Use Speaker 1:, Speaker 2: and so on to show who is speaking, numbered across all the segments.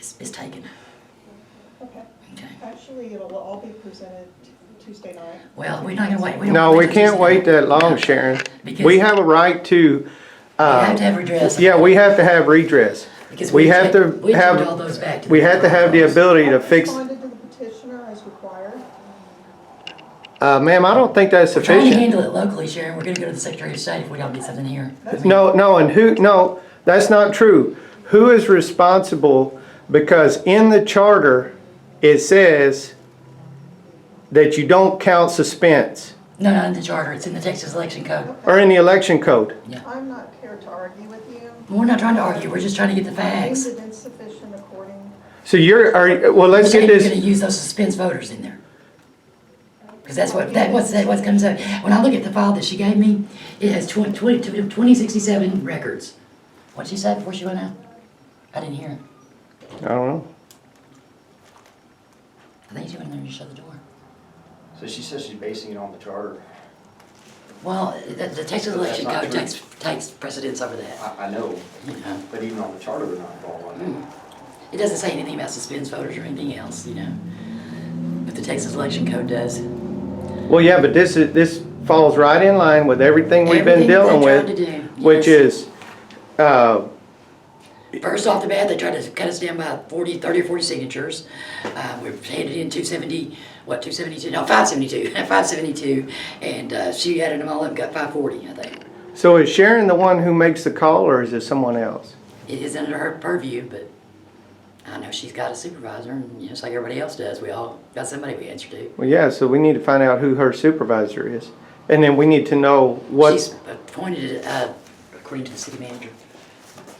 Speaker 1: is, is taken,
Speaker 2: Okay,
Speaker 1: okay?
Speaker 2: actually, it'll all be presented Tuesday night.
Speaker 1: Well, we're not gonna wait. don't
Speaker 3: No,
Speaker 1: wanna
Speaker 3: we
Speaker 1: wait
Speaker 3: can't
Speaker 1: this-
Speaker 3: wait that long, Sharon.
Speaker 1: Because
Speaker 3: We have a right to,
Speaker 1: We have to
Speaker 3: uh,
Speaker 1: have redress.
Speaker 3: yeah, we have to have redress.
Speaker 1: Because
Speaker 3: we
Speaker 1: we
Speaker 3: have to
Speaker 1: turned, we
Speaker 3: have-
Speaker 1: turned all those back to.
Speaker 3: We have to have the ability to fix,
Speaker 2: Responded to the petitioner as required.
Speaker 3: uh, ma'am, I don't think that's
Speaker 1: Trying to
Speaker 3: sufficient.
Speaker 1: handle it locally, Sharon, we're gonna go to the Secretary of State if we don't get something here.
Speaker 3: No, no, and who, no, that's not true. Who is responsible? Because in the charter, it says that you don't count suspense
Speaker 1: No, not in the charter, it's in the Texas Election Code.
Speaker 3: or in the election code.
Speaker 2: I'm not here to argue with you.
Speaker 1: We're not trying to argue, we're just trying to get the facts.
Speaker 2: Is it insufficient according,
Speaker 3: So you're, are, well, let's
Speaker 1: You're saying
Speaker 3: get
Speaker 1: you're
Speaker 3: this,
Speaker 1: gonna use those suspense voters in there. Cause that's what, that what's, that what comes up, when I look at the file that she gave me, it has twen- twenty, twenty, twenty sixty-seven records. What'd she say before she went out? I didn't hear.
Speaker 3: I don't know.
Speaker 1: I think she went in there and shut the door.
Speaker 4: So she says she's basing it on the charter.
Speaker 1: Well, the, the Texas election
Speaker 4: not
Speaker 1: code
Speaker 4: true.
Speaker 1: takes, takes precedence over that,
Speaker 4: I, I know,
Speaker 1: you know?
Speaker 4: but even on the charter, they're not involved on
Speaker 1: Hmm.
Speaker 4: that.
Speaker 1: It doesn't say anything about suspense voters or anything else, you know? But the Texas election code does.
Speaker 3: Well, yeah, but this is, this falls right in line with everything we've
Speaker 1: Everything
Speaker 3: been
Speaker 1: that
Speaker 3: dealing
Speaker 1: they
Speaker 3: with.
Speaker 1: tried to do, yes.
Speaker 3: Which is, uh,
Speaker 1: First off the bat, they tried to cut us down by 40, 30 or 40 signatures. Uh, we handed in 270, what, 272? No, 572. 572. And uh, she added them all up and got 540, I think.
Speaker 3: so is Sharon the one who makes the call or is it someone else?
Speaker 1: It is under her purview, but I know she's got a supervisor, and you know, just like everybody else does, we all got somebody we answer to.
Speaker 3: Well, yeah, so we need to find out who her supervisor is. And then we need to know
Speaker 1: She's
Speaker 3: what,
Speaker 1: appointed uh, according to the city manager.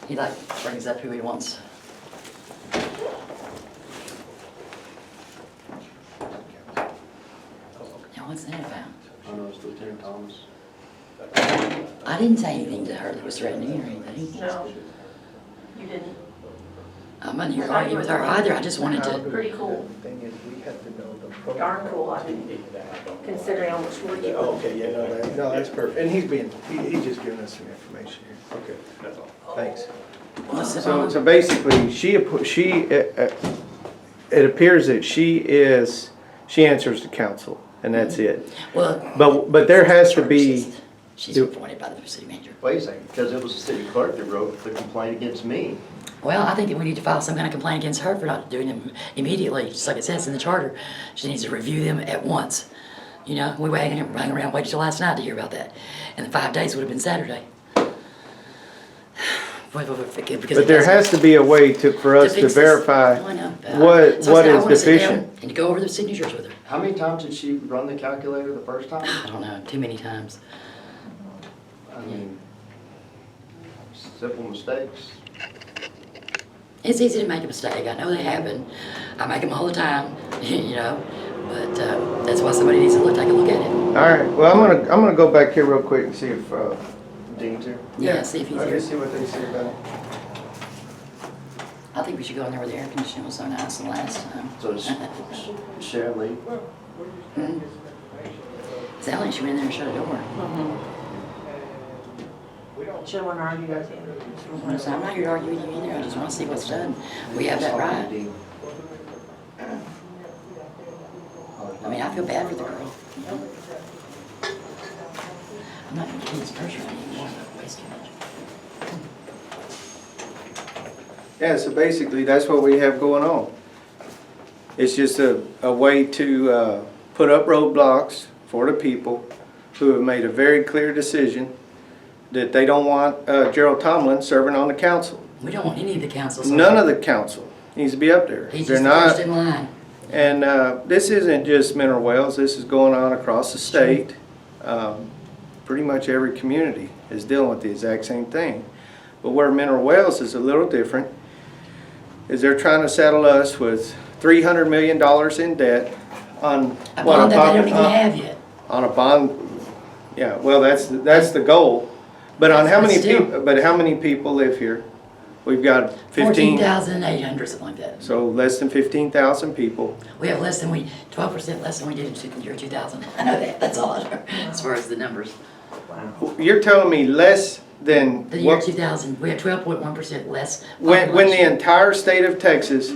Speaker 1: He like brings up who he wants. Now, what's that about?
Speaker 4: I know it's Lieutenant Thomas.
Speaker 1: I didn't say anything to her that was threatening or anything.
Speaker 5: No, you didn't.
Speaker 1: I'm not here arguing with her either, I just wanted to,
Speaker 5: Pretty cool,
Speaker 6: Thing is, we have to know the. protocol.
Speaker 5: darn cool, I mean, considering how much work you
Speaker 6: Oh, Okay, yeah, no, that- no, that's perfect. And he's being, he, he's just giving us some information here. Okay, that's all. Thanks.
Speaker 1: what's the
Speaker 3: so,
Speaker 1: problem?
Speaker 3: so basically, she, app- she, uh, uh, it appears that she is, she answers to council and that's
Speaker 1: Mm-hmm.
Speaker 3: it.
Speaker 1: Well.
Speaker 3: But, but there has to be,
Speaker 1: She's appointed by the city manager.
Speaker 4: Wait a second, because it was the city clerk that wrote the complaint against me.
Speaker 1: Well, I think that we need to file some kind of complaint against her for not doing them immediately, just like it says in the charter. She needs to review them at once. You know, we were hanging, hanging around, waited till last night to hear about that. And the five days would have been Saturday. But
Speaker 3: but there has to be a way to, for us to
Speaker 1: fix this.
Speaker 3: verify
Speaker 1: Oh, I know, but I-
Speaker 3: what,
Speaker 1: so I
Speaker 3: what
Speaker 1: said I
Speaker 3: is
Speaker 1: wanna sit down
Speaker 3: deficient.
Speaker 1: And to go over the signatures with her.
Speaker 4: How many times did she run the calculator the first time?
Speaker 1: I don't know, too many times.
Speaker 4: I mean, simple mistakes.
Speaker 1: It's easy to make a mistake. I know they happen. I make them all the time, you know. But uh, that's why somebody needs to look, take a look at it.
Speaker 3: All right, well, I'm gonna, I'm gonna go back here real quick and see if, uh,
Speaker 4: Dean's here.
Speaker 1: Yeah, see if he's
Speaker 3: Okay,
Speaker 1: here.
Speaker 3: see what they say about it.
Speaker 1: I think we should go in there where the air conditioning was so nice the last time.
Speaker 4: So it's
Speaker 3: Hmm?
Speaker 4: Sharon Lee.
Speaker 1: Sally, she went in there and shut a door.
Speaker 5: Should one argue with you?
Speaker 1: And I said, I'm not here to argue with you either. I just want to see what's done. We have that right. I mean, I feel bad for the girl. you know? I'm not going to keep this pressure on anymore. I waste too much.
Speaker 3: Yeah, so basically, that's what we have going on. It's just a, a way to, uh, put up roadblocks for the people who have made a very clear decision that they don't want uh, Gerald Tomlin serving on the council.
Speaker 1: We don't want any of the councils.
Speaker 3: None of the council needs to be up there.
Speaker 1: He's
Speaker 3: They're
Speaker 1: just the first
Speaker 3: not,
Speaker 1: in line.
Speaker 3: and, uh, this isn't just Mineral Wells, this is going on across the state. Um, Pretty much every community is dealing with the exact same thing. But where Mineral Wells is a little different is they're trying to saddle us with three hundred million dollars in debt on.
Speaker 1: A
Speaker 3: what, uh,
Speaker 1: bond that they don't even
Speaker 3: on-
Speaker 1: have yet.
Speaker 3: On a bond, yeah, well, that's, that's the goal. But on how many
Speaker 1: That's still-
Speaker 3: people, but how many people live here? We've got
Speaker 1: Fourteen
Speaker 3: fifteen,
Speaker 1: thousand eight hundred, something like that.
Speaker 3: so less than fifteen thousand people.
Speaker 1: We have less than we, twelve percent less than we did in two- the year two thousand. I know that, that's all, I know, as far as the numbers.
Speaker 3: You're telling me less than
Speaker 1: The year
Speaker 3: what,
Speaker 1: two thousand, we had twelve point one percent less.
Speaker 3: when, when the
Speaker 1: population.
Speaker 3: entire state of Texas